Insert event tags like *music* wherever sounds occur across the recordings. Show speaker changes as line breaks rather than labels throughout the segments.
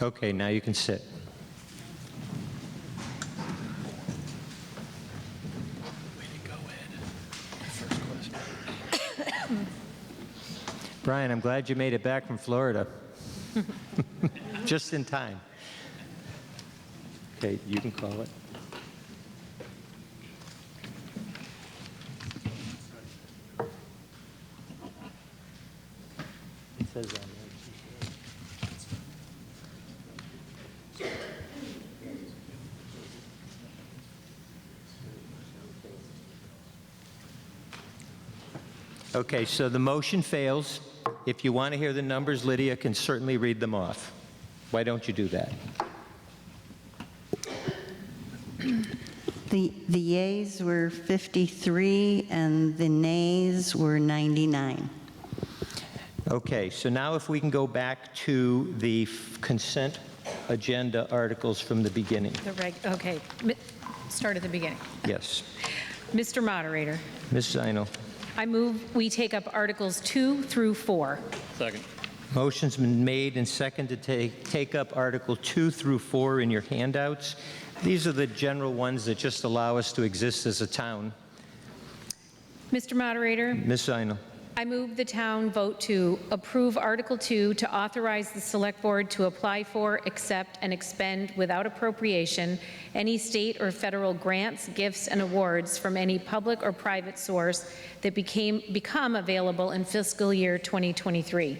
Okay, now you can sit. *coughs* Brian, I'm glad you made it back from Florida. *laughs* Just in time. Okay, you can call it. It says on there. Okay, so the motion fails. If you want to hear the numbers, Lydia can certainly read them off. Why don't you do that?
The, the yeas were 53 and the nays were 99.
Okay, so now if we can go back to the consent agenda articles from the beginning.
The reg, okay, Mi- start at the beginning.
Yes.
Mr. Moderator,
Ms. Zino.
I move we take up Articles 2 through 4.
Second.
Motion's been made and seconded to take- take up Article 2 through 4 in your handouts. These are the general ones that just allow us to exist as a town.
Mr. Moderator,
Ms. Zino.
I move the town vote to approve Article 2 to authorize the Select Board to apply for, accept, and expend without appropriation any state or federal grants, gifts, and awards from any public or private source that became, become available in fiscal year 2023.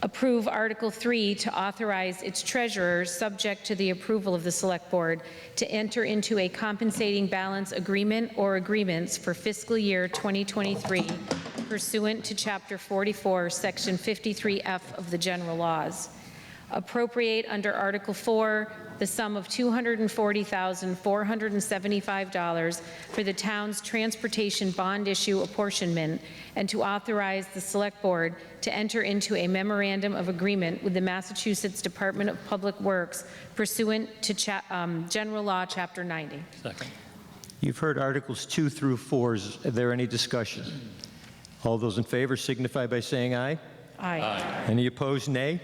Approve Article 3 to authorize its treasurer, subject to the approval of the Select Board, to enter into a compensating balance agreement or agreements for fiscal year 2023 pursuant to Chapter 44, Section 53F of the General Laws. Appropriate under Article 4 the sum of $240,475 for the town's transportation bond issue apportionment, and to authorize the Select Board to enter into a memorandum of agreement with the Massachusetts Department of Public Works pursuant to cha- um, General Law, Chapter 90.
Second.
You've heard Articles 2 through 4. Is there any discussion? All those in favor signify by saying aye.
Aye.
Any opposed, nay?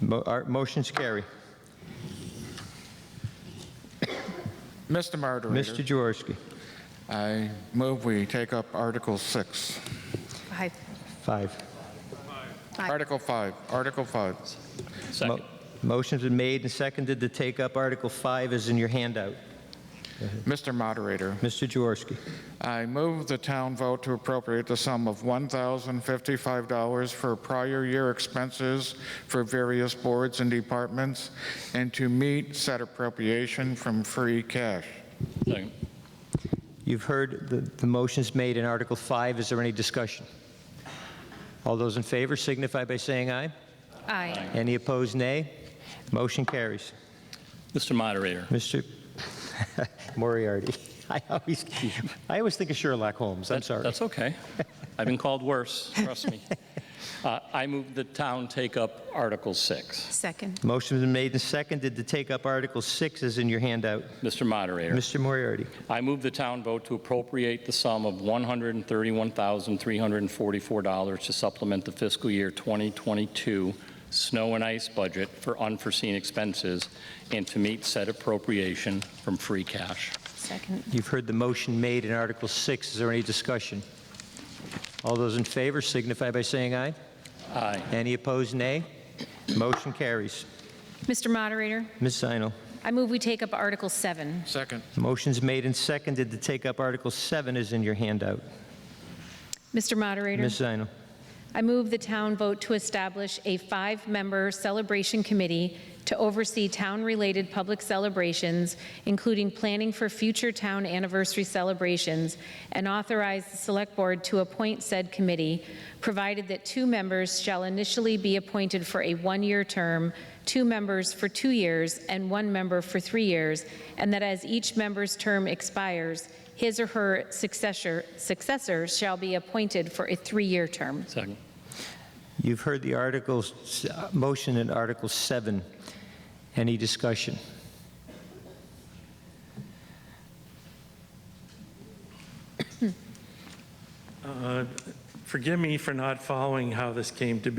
Mo- our- Motions carry.
Mr.
Mr.
Moderator,
Jaworski,
I move we take up Article 6.
Aye.
five.
Aye.
Article 5, Article 5.
Mo-
Second.
Motion's been made and seconded to take up Article 5 as in your handout.
Mr. Moderator,
Mr. Jaworski,
I move the town vote to appropriate the sum of $1,055 for prior year expenses for various boards and departments, and to meet said appropriation from free cash.
Second.
you've heard the- the motions made in Article 5. Is there any discussion? All those in favor signify by saying aye.
Aye.
Any opposed, nay? Motion carries.
Mr. Moderator,
Mr. *laughs* Moriarty. I always, I always think of Sherlock Holmes. I'm
That-
sorry.
That's okay.
*laughs*
I've been called worse, trust me. Uh, I move the town take up Article 6.
Second.
Motion's been made and seconded to take up Article 6 as in your handout.
Mr. Moderator,
Mr. Moriarty.
I move the town vote to appropriate the sum of $131,344 to supplement the fiscal year 2022 snow and ice budget for unforeseen expenses and to meet said appropriation from free cash.
Second.
You've heard the motion made in Article 6. Is there any discussion? All those in favor signify by saying aye.
Aye.
Any opposed, nay. Motion carries.
Mr. Moderator,
Ms. Zinal.
I move we take up Article 7.
Second.
Motion's made and seconded to take up Article 7 as in your handout.
Mr. Moderator?
Ms. Zinal.
I move the town vote to establish a five-member celebration committee to oversee town-related public celebrations, including planning for future town anniversary celebrations, and authorize the Select Board to appoint said committee, provided that two members shall initially be appointed for a one-year term, two members for two years, and one member for three years, and that as each member's term expires, his or her successor successor shall be appointed for a three-year term.
Second.
You've heard the articles, uh, motion in Article 7. Any discussion?
Forgive me for not following how this came to be.